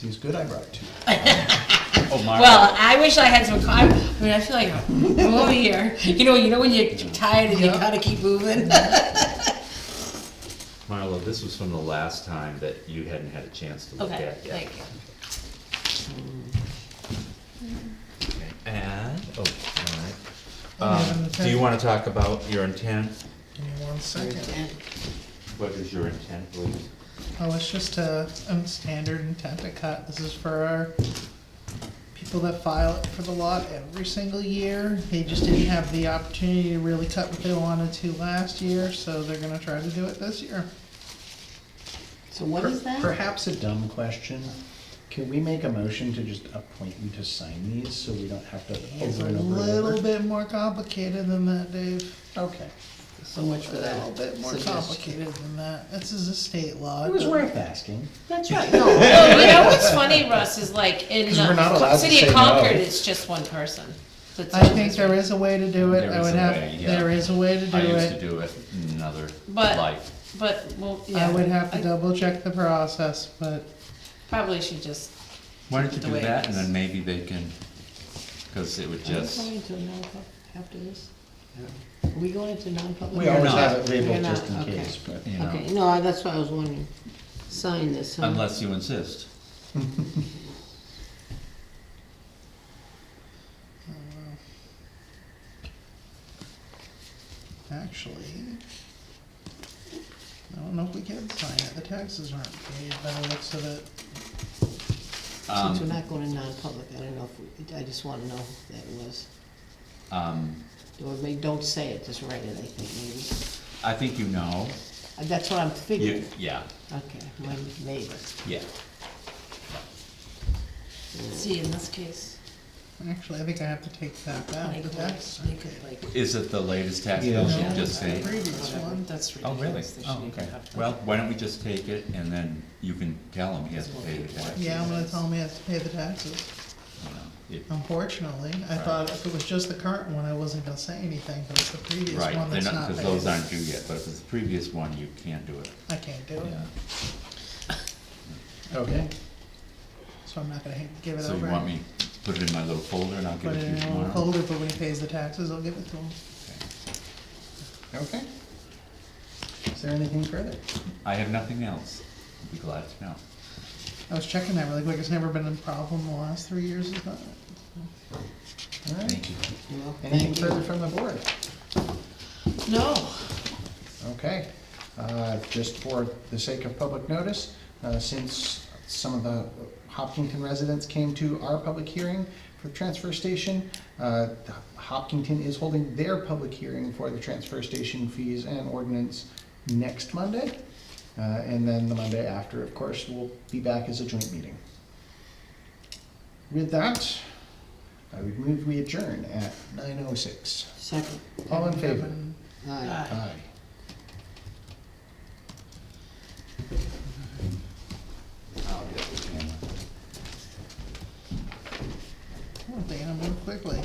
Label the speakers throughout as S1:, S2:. S1: these good I brought to you.
S2: Oh, my.
S3: Well, I wish I had some. co- I mean, I feel like I'm over here. You know, you know when you're tired and you
S1: Yeah.
S3: gotta keep moving.
S2: Marlo, this was from the last time that you hadn't had a chance to look
S3: okay,
S2: at yet.
S3: thank you.
S2: And, oh, all right. Um, do you wanna talk about your intent?
S1: Give me one second.
S2: What is your intent, please?
S1: Oh, it's just a, a standard intent to cut. This is for our people that file it for the lot every single year. They just didn't have the opportunity to really cut what they wanted to last year, so they're gonna try to do it this year.
S3: So what is
S4: Perhaps a dumb question. Can we make a motion to just appoint you to sign these so we don't have to
S1: It's a
S4: over and over and
S1: little
S4: over?
S1: bit more complicated than that, Dave.
S4: Okay.
S5: So much for
S1: A
S5: that.
S1: little bit more
S5: suggestion.
S1: complicated than that. This is a state law.
S4: It was worth asking.
S5: That's right, no,
S3: Well, you know what's funny, Russ, is like in
S4: 'Cause we're not allowed
S3: the
S4: to
S3: city
S4: say
S3: of
S4: no.
S3: Concord, it's just one person. That's
S1: I
S3: all
S1: think there is a way to do it.
S2: There
S1: I
S2: is
S1: would
S2: a
S1: have,
S2: way, yeah.
S1: there is a way to do
S2: I used to
S1: it.
S2: do it in another
S3: But-
S2: life.
S3: But, well, yeah.
S1: I would have to
S3: I
S1: double check the process, but
S3: Probably should just,
S2: Why don't you
S3: The
S2: do
S3: way it
S2: that and
S3: is.
S2: then maybe they can, cause it would
S5: are we
S2: just,
S5: going into a non-public after this? Are we going into non-public?
S4: We always
S2: not.
S4: have it
S5: We're
S4: labeled
S5: not,
S4: just in
S5: okay.
S4: case, but.
S2: you know,
S5: Okay, no, I- that's why I was wondering, sign this, huh?
S2: unless you insist.
S1: Uh, actually, I don't know if we can sign it. The taxes aren't paid by the looks of it.
S5: Since we're
S2: Um,
S5: not going to non-public, I don't know if, we- I just wanna know if that was,
S2: um,
S5: or maybe, don't say it, just write it, I think,
S2: I think you know,
S5: maybe. Uh, That's what I'm
S2: you,
S5: figuring,
S2: yeah,
S5: okay, my- maybe.
S2: yeah.
S3: see, in this case,
S1: Actually, I think I have to take that back.
S3: they
S1: The
S3: could,
S1: tax.
S3: they could like,
S2: Is it the latest tax bill
S1: Yeah.
S2: you just say?
S1: Previous
S3: whatever,
S1: one.
S3: that's
S2: Oh, really?
S3: ridiculous. They
S2: Oh,
S3: shouldn't even
S2: okay.
S3: have to-
S2: Well, why don't we just take it and then you can tell him he has to pay the tax.
S1: Yeah, I'm gonna tell him he has to pay the taxes.
S2: you know, it-
S1: Unfortunately, I
S2: Right.
S1: thought if it was just the current one, I wasn't gonna say anything, but it's the previous
S2: Right,
S1: one
S2: they're
S1: that's
S2: not,
S1: not
S2: because those
S1: paid.
S2: aren't due yet, but if it's the previous one, you can't do it.
S1: I can't do it,
S2: Yeah.
S4: Okay.
S1: so I'm not gonna ha- give it over.
S2: So you want me to put it in my little folder and I'll give
S1: Put
S2: it to you
S1: it in a little
S2: tomorrow?
S1: folder, but when he pays the taxes, I'll give it to him.
S4: Okay. Is there anything further?
S2: I have nothing else. I'd be glad to know.
S1: I was checking that really quick, it's never been a problem the last three years, is that?
S4: All right.
S2: Thank you.
S5: Well,
S4: Anything
S5: thank you.
S4: further from the board?
S3: No,
S4: Okay, uh, just for the sake of public notice, uh, since some of the Hopkinton residents came to our public hearing for the transfer station, uh, Hopkinton is holding their public hearing for the transfer station fees and ordinance next Monday. Uh, And then the Monday after, of course, we'll be back as a joint meeting. With that, I would move we adjourn at nine oh six.
S5: Second,
S4: All in favor?
S5: aye.
S1: Ah,
S3: Aye.
S4: Aye.
S2: I'll get the camera.
S1: Oh, Dana moved quickly.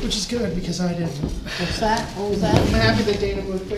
S1: Which is good, because I didn't.
S5: What's that, what was that?
S1: I'm happy that Dana moved quickly.